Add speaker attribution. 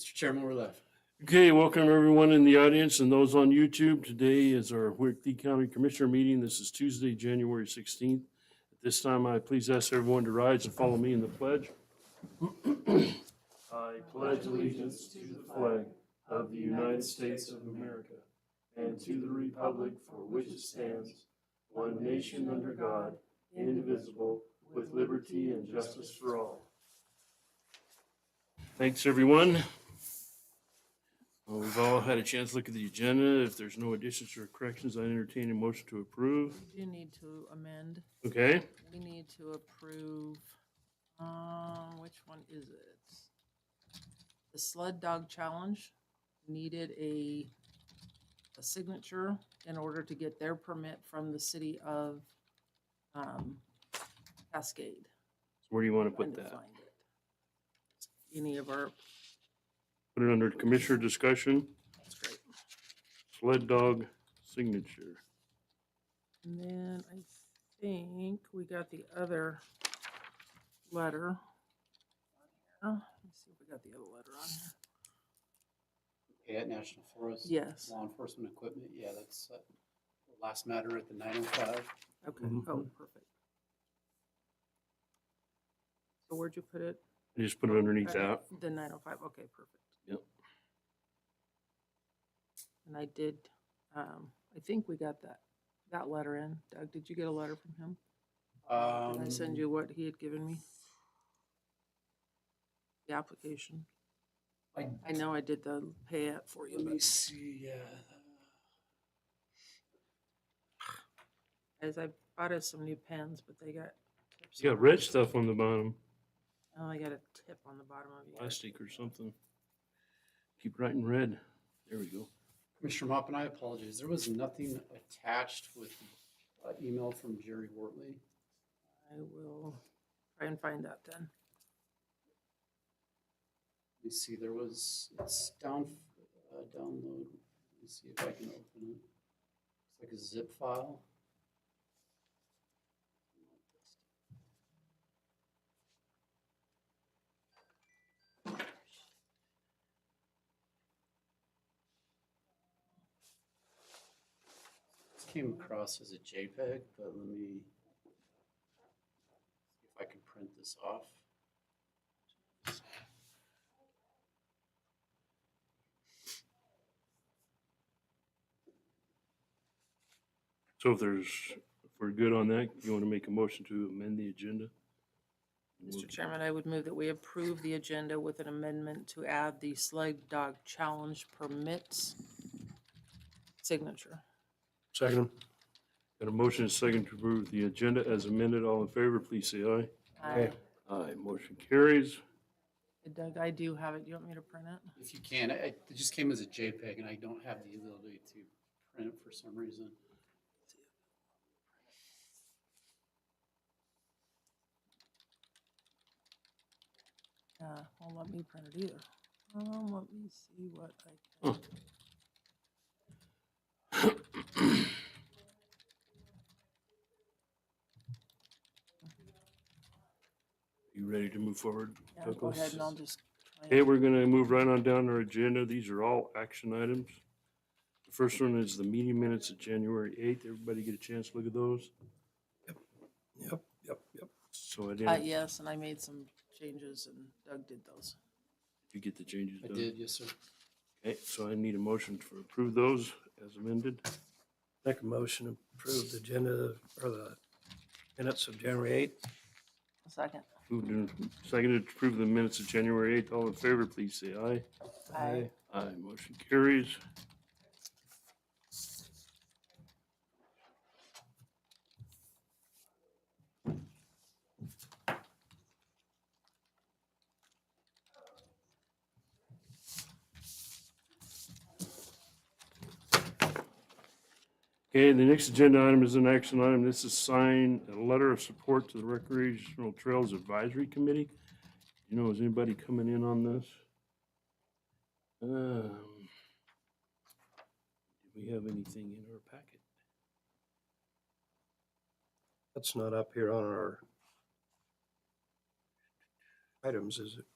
Speaker 1: Mr. Chairman, we're live.
Speaker 2: Okay, welcome everyone in the audience and those on YouTube. Today is our Whitley County Commissioner meeting. This is Tuesday, January 16th. At this time, I please ask everyone to rise and follow me in the pledge. I pledge allegiance to the flag of the United States of America and to the republic for which it stands, one nation under God, indivisible, with liberty and justice for all. Thanks, everyone. Well, we've all had a chance to look at the agenda. If there's no additions or corrections, I entertain a motion to approve.
Speaker 3: We do need to amend.
Speaker 2: Okay,
Speaker 3: We need to approve, um, which one is it? The sled dog challenge needed a, a signature in order to get their permit from the city of, um, Cascade.
Speaker 2: so where do you want to
Speaker 3: Trying
Speaker 2: put
Speaker 3: to
Speaker 2: that?
Speaker 3: find it. Any of our,
Speaker 2: Put it under commissioner discussion,
Speaker 3: that's great.
Speaker 2: sled dog signature.
Speaker 3: And then I think we got the other letter. Uh, Let's see if we got the other letter on here.
Speaker 1: Okay, at National Forest.
Speaker 3: Yes,
Speaker 1: Law enforcement equipment, yeah, that's uh, the last matter at the nine oh five.
Speaker 3: okay,
Speaker 2: Mhm.
Speaker 3: oh, perfect. So where'd you put it?
Speaker 2: I Just put it underneath
Speaker 3: Uh,
Speaker 2: that.
Speaker 3: The nine oh five, okay, perfect.
Speaker 2: Yep.
Speaker 3: And I did, um, I think we got that, that letter in. Doug, did you get a letter from him? Did I
Speaker 1: Um,
Speaker 3: send you what he had given me? The application. I know I did the pay app for you,
Speaker 1: Let me
Speaker 3: but
Speaker 1: see, uh, yeah.
Speaker 3: as I bought us some new pens, but they got. tips
Speaker 2: It's got
Speaker 3: on
Speaker 2: red
Speaker 3: it.
Speaker 2: stuff on the bottom,
Speaker 3: Oh, I got a tip on the bottom of yours.
Speaker 2: plastic or something. Keep writing red. There we go.
Speaker 1: Commissioner Mop and I apologize. There was nothing attached with uh, email from Jerry Wortley.
Speaker 3: I will try and find that then.
Speaker 1: Let me see, there was, it's down, uh, download. Let me see if I can open it. It's like a zip file. This came across as a JPEG, but let me see if I can print this off.
Speaker 2: So if there's, if we're good on that, you want to make a motion to amend the agenda?
Speaker 3: Mr. Chairman, I would move that we approve the agenda with an amendment to add the sled dog challenge permits signature.
Speaker 2: Second. Got a motion and second to approve the agenda as amended. All in favor, please say aye.
Speaker 3: I-
Speaker 2: Aye, motion carries.
Speaker 3: Doug, I do have it. You want me to print it?
Speaker 1: If you can, it it just came as a JPEG and I don't have the ability to print it for some reason.
Speaker 3: Uh, won't let me print it either. Um, let me see what I
Speaker 2: Huh.
Speaker 3: can.
Speaker 2: You ready to move forward?
Speaker 3: Yeah, go ahead and I'll just. try
Speaker 2: Okay,
Speaker 3: and-
Speaker 2: we're gonna move right on down our agenda. These are all action items. The first one is the meeting minutes of January eighth. Everybody get a chance to look at those?
Speaker 4: Yep, yep, yep.
Speaker 2: So I
Speaker 3: Uh,
Speaker 2: didn't, did
Speaker 3: yes, and I made some changes and Doug did those.
Speaker 2: you get the changes
Speaker 1: I
Speaker 2: done?
Speaker 1: did, yes, sir.
Speaker 2: Okay, so I need a motion to approve those as amended.
Speaker 4: Make a motion to approve the agenda or the minutes of January 8th.
Speaker 3: A second.
Speaker 2: Moved and seconded to approve the minutes of January eighth. All in favor, please say aye.
Speaker 3: I
Speaker 2: Aye, motion carries. Okay, the next agenda item is an action item. This is sign a letter of support to the Recreational Trails Advisory Committee. You know, is anybody coming in on this? Um, Do we have anything in our packet?
Speaker 4: That's not up here on our items, is it?